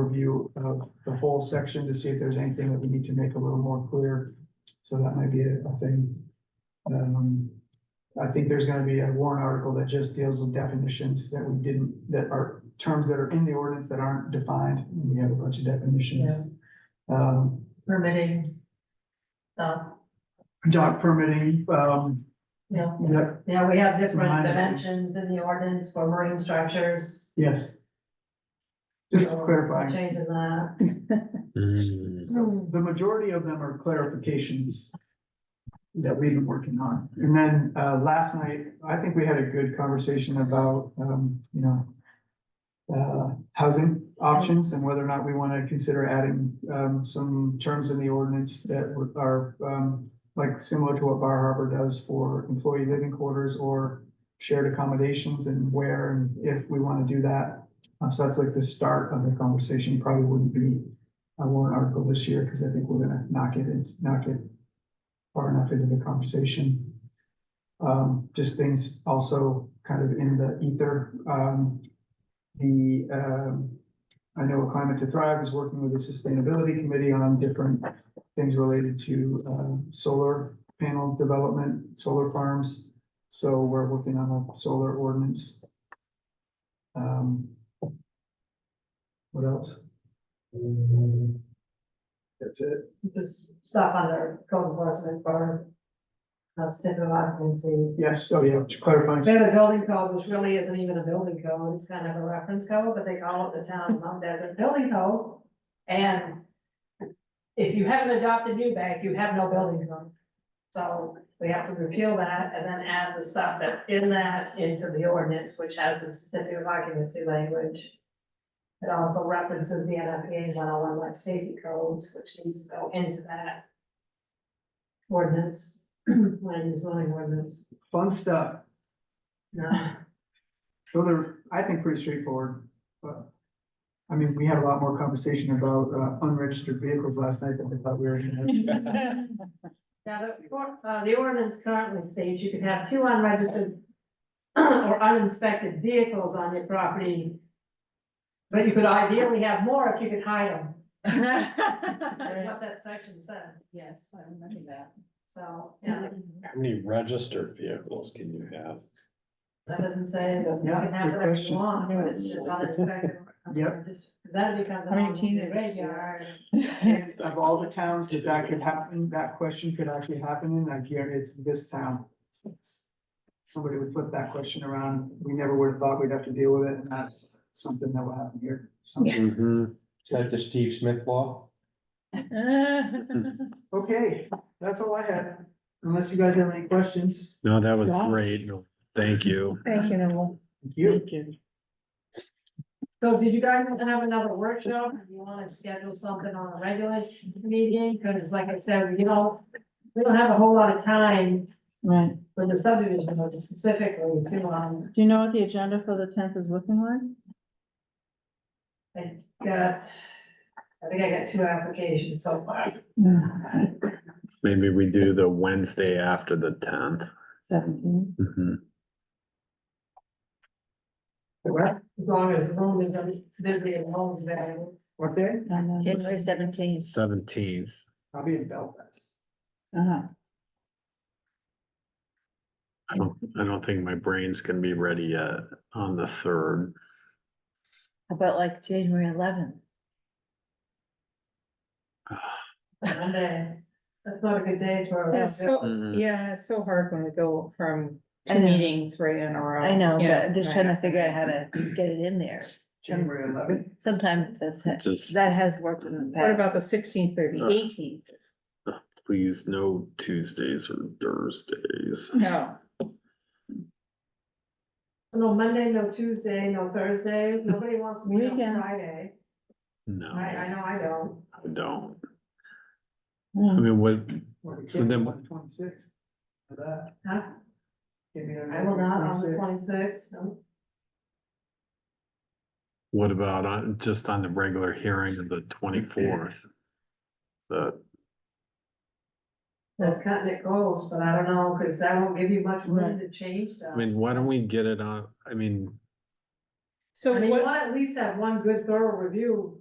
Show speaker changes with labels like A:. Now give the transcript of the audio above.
A: review of the whole section to see if there's anything that we need to make a little more clear. So that might be a a thing. Um, I think there's gonna be a warrant article that just deals with definitions that we didn't, that are terms that are in the ordinance that aren't defined. and We have a bunch of definitions. Um,
B: permitting stuff,
A: dog permitting, um,
B: you know,
A: yep,
B: you know, we have different
A: Minor things.
B: dimensions in the ordinance for marine structures.
A: yes. Just
B: so
A: clarifying.
B: Changing that.
C: Mm.
A: So the majority of them are clarifications that we've been working on. And then, uh, last night, I think we had a good conversation about, um, you know, uh, housing options and whether or not we want to consider adding, um, some terms in the ordinance that were- are, um, like similar to what Bar Harbor does for employee living quarters or shared accommodations and where and if we want to do that. Uh, So that's like the start of the conversation, probably wouldn't be a warrant article this year, because I think we're gonna knock it in, knock it far enough into the conversation. Um, just things also kind of in the ether, um, the, um, I know Climate to Thrive is working with the Sustainability Committee on different things related to, um, solar panel development, solar farms. So we're working on a solar ordinance. Um, what else? That's it.
B: Just Stuff under code enforcement for uh, standard occupancies.
A: Yes, oh yeah, clarifying,
B: They have a building code, which really isn't even a building code, it's kind of a reference code, but they call it the town of Mount Desert Building Code. And if you haven't adopted Newbank, you have no building code. So we have to repeal that and then add the stuff that's in that into the ordinance, which has the certificate of occupancy language. It also references the NFPA one oh one life safety codes, which needs to go into that ordinance, land use zoning ordinance,
A: fun stuff,
B: no.
A: those are, I think, pretty straightforward, but. I mean, we had a lot more conversation about uh, unregistered vehicles last night than we thought we were gonna have.
B: Now, the, or- uh, the ordinance currently states you can have two unregistered or uninspected vehicles on your property. But you could ideally have more if you could hide them, that's what that section said,
D: Yes, I remember that.
B: so, yeah,
C: How many registered vehicles can you have?
B: that doesn't say that you
A: Yeah,
B: can have
A: good
B: whatever you
A: question.
B: want, but it's just uninspected.
A: Yep.
B: Because that becomes.
D: How many
B: a
D: teenagers do you
B: graveyard.
A: And Of all the towns that that could happen, that question could actually happen in, I guarantee it's this town. Somebody would flip that question around, we never would have thought we'd have to deal with it, and that's something that will happen here. someday.
C: Mm-hmm.
E: Is that the Steve Smith law?
A: Okay, that's all I had, unless you guys have any questions,
C: No, that was
D: Wow.
C: great. No, Thank you.
D: Thank you, Noel.
A: thank you.
D: you.
B: So did you guys want to have another workshop? Do you want to schedule something on a regular meeting? Because like I said, you know, we don't have a whole lot of time
D: Right,
B: for the subdivision or specifically to, um,
D: do you know what the agenda for the tenth is looking like?
B: I got, I think I got two applications so far.
C: Maybe we do the Wednesday after the tenth. Mm-hmm.
D: Seventeen,
A: What,
B: As long as home isn't busy and home's available.
A: what day?
D: I know.
F: January seventeenth.
C: Seventeenth.
A: I'll be in Belfast.
D: Uh-huh.
C: I don't, I don't think my brain's gonna be ready yet on the third.
F: How About like January eleventh.
B: Monday, that's not a good day for. a-
G: That's so,
C: Mm-hmm.
G: yeah, it's so hard when we go from
F: Mm-hmm. I
G: two
F: know.
G: meetings right in a row.
F: I know, but
G: Yeah,
F: I'm just
G: right.
F: trying to figure out how to get it in there. Some-
A: January eleventh.
F: Sometimes that's,
C: Just-
F: that has worked in the past.
G: What about the sixteenth or the
C: Uh.
G: eighteenth?
C: Please, no Tuesdays or Thursdays.
G: No,
B: No Monday, no Tuesday, no Thursday. Nobody wants to meet on
D: Weekends.
B: Friday.
C: No,
B: I, I
C: I
B: know I don't.
C: don't. I
D: Mm.
C: mean, what, So then-
A: Twenty-sixth. For that.
B: Huh?
A: Give me a
B: I will not on the
A: 26th.
B: twenty-sixth, no.
C: what about on, just on the regular hearing of the twenty-fourth? The,
B: that's cutting it close, but I don't know, cause that won't give you much room
D: Right.
B: to change stuff.
C: I mean, why don't we get it on, I mean,
G: so
B: I mean, you
G: what?
B: wanna at least have one good thorough review